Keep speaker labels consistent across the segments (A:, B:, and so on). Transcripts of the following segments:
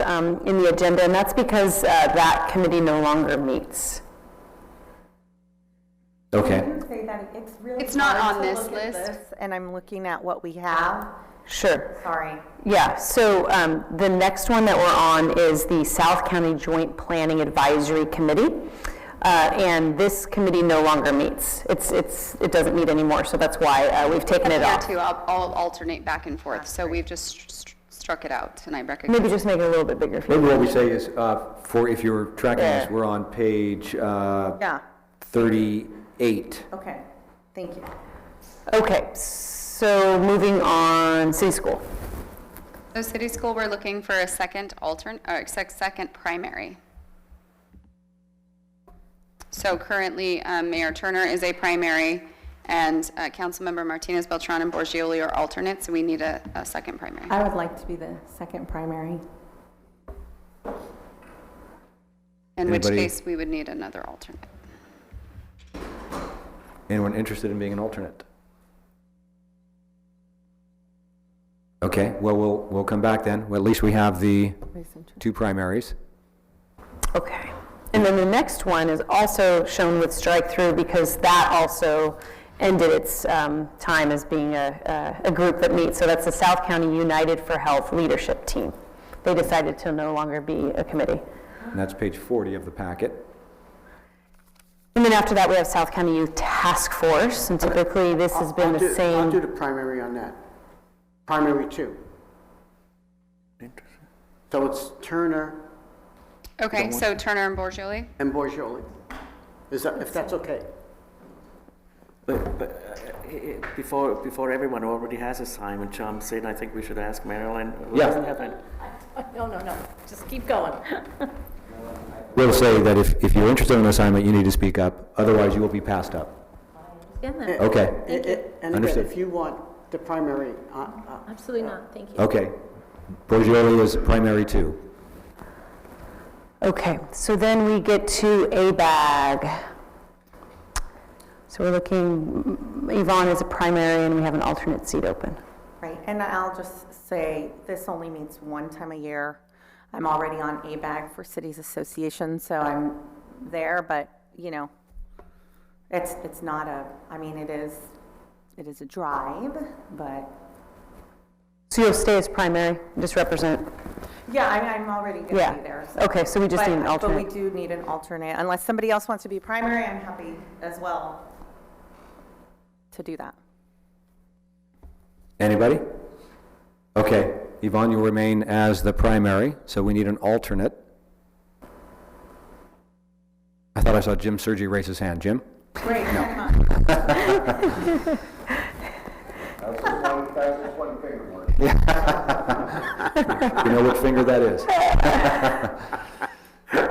A: um, in the agenda, and that's because uh, that committee no longer meets.
B: Okay,
C: Say that, it's really.
D: It's not
C: hard
D: on
C: to
D: this
C: look at
D: list.
C: this, And I'm looking at what we have,
A: Sure.
C: sorry.
A: Yeah, so um, the next one that we're on is the South County Joint Planning Advisory Committee. Uh, And this committee no longer meets. It's, it's, it doesn't meet anymore, so that's why uh, we've taken it
D: Here
A: off.
D: too, I'll I'll alternate back and forth, so we've just str- str- struck it out, and I recognize.
A: Maybe just make it a little bit bigger. if you-
B: maybe what we say is, uh, for, if you're tracking this,
A: Yeah.
B: we're on page uh,
C: Yeah,
B: 38.
C: okay, thank you.
A: Okay, so moving on, city school.
D: So city school, we're looking for a second altern, or sec- second primary. So currently, um, Mayor Turner is a primary, and uh, Councilmember Martinez Beltran and Borgioli are alternates, so we need a, a second primary.
C: I would like to be the second primary.
D: In which
B: Anybody-
D: case, we would need another alternate.
B: Anyone interested in being an alternate? Okay, well, we'll, we'll come back then. Well, at least we have the two primaries.
A: Okay. And then the next one is also shown with strike through because that also ended its um, time as being a, a a group that meets. So that's the South County United for Health Leadership Team. They decided to no longer be a committee.
B: And that's page 40 of the packet.
A: And then after that, we have South County Youth Task Force, and typically this has been
E: I'll do-
A: the
E: I'll do
A: same.
E: the primary on that. Primary two. So it's Turner
D: Okay, so Turner and Borgioli?
E: and Borzioli. Is that, if that's okay?
F: But, but uh, i- i- before, before everyone already has assignment, John said, I think we should ask Marilyn. who
B: Yeah.
F: doesn't have any-
G: No, no, no, just keep going.
B: We'll say that if, if you're interested in an assignment, you need to speak up, otherwise you will be passed up. Okay,
E: I- I- And again,
B: Understood.
E: if you want the primary, uh, uh,
G: Absolutely not, thank you.
B: okay. Borgioli is primary two.
A: Okay, so then we get to ABAG. So we're looking, Yvonne is a primary, and we have an alternate seat open.
C: Right, and I'll just say, this only meets one time a year. I'm already on ABAG for Cities Association, so I'm there, but, you know, it's, it's not a, I mean, it is, it is a drive, but,
A: So you'll stay as primary, just represent,
C: yeah, I- I'm already going to
A: yeah.
C: be there. so-
A: Okay, so we just need an
C: But- But we
A: alternate.
C: do need an alternate, unless somebody else wants to be primary, I'm happy as well to do that.
B: Anybody? Okay, Yvonne, you remain as the primary, so we need an alternate. I thought I saw Jim Sergi raise his hand. Jim?
C: Great, hang on.
B: You know what finger that is?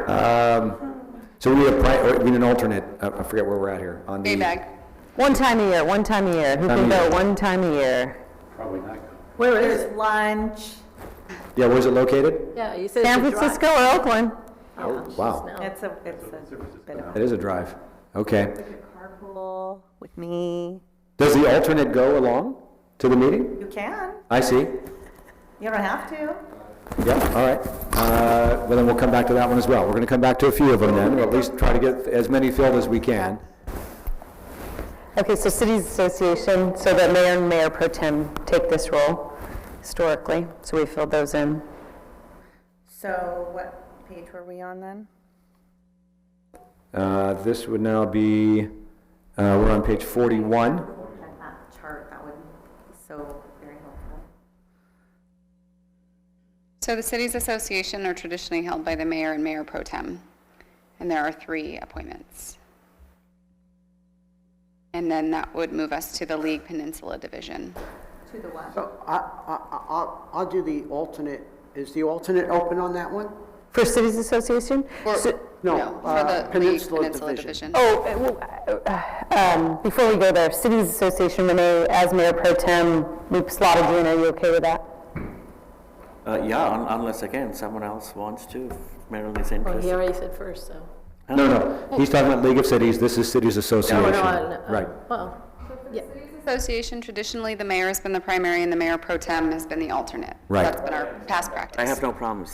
B: Um, So we need a pri, or we need an alternate, I I forget where we're at here, on the...
D: A-bag.
A: One time a year, one time a year. Who
B: Time
A: can
B: a
A: go
B: year.
A: one time a year?
G: Where is it?
C: There's lunch,
B: Yeah, where's it located?
G: Yeah, you said it's a
A: San
G: drive.
A: Francisco or Oakland?
B: Oh, wow.
G: No.
C: it's a, it's a bit of
B: That is a drive. Okay.
C: carpool with me.
B: Does the alternate go along to the meeting?
C: You can.
B: I see.
C: You don't have to.
B: Yeah, all right. Uh, Well, then we'll come back to that one as well. We're going to come back to a few of them then, or at least try to get as many filled as we can.
A: Okay, so Cities Association, so that mayor and mayor pro tem take this role historically, so we filled those in.
C: So what page were we on then?
B: Uh, This would now be, uh, we're on page 41.
C: Had that chart, that would be so very helpful.
D: So the cities association are traditionally held by the mayor and mayor pro tem, and there are three appointments. And then that would move us to the League Peninsula Division.
C: To the what?
E: so I, I, I- I'll, I'll do the alternate. Is the alternate open on that one?
A: For Cities Association?
D: Or-
A: So-
E: No,
D: for
E: uh,
D: the League
E: Peninsula
D: Peninsula Division.
E: Division.
A: Oh, uh, well, uh, um, before we go there, Cities Association, Renee, as mayor pro tem, we slotted you in, are you okay with that?
F: Uh, yeah, un- unless again, someone else wants to, if Marilyn is
G: Well, he
F: interested.
G: already said first, so.
B: No, no, he's talking about League of Cities, this is Cities Association.
G: No, uh, no, no.
B: Right.
G: Well, yeah,
D: Association, traditionally, the mayor has been the primary and the mayor pro tem has been the alternate.
B: Right.
D: That's been our past practice.
F: I have no problems.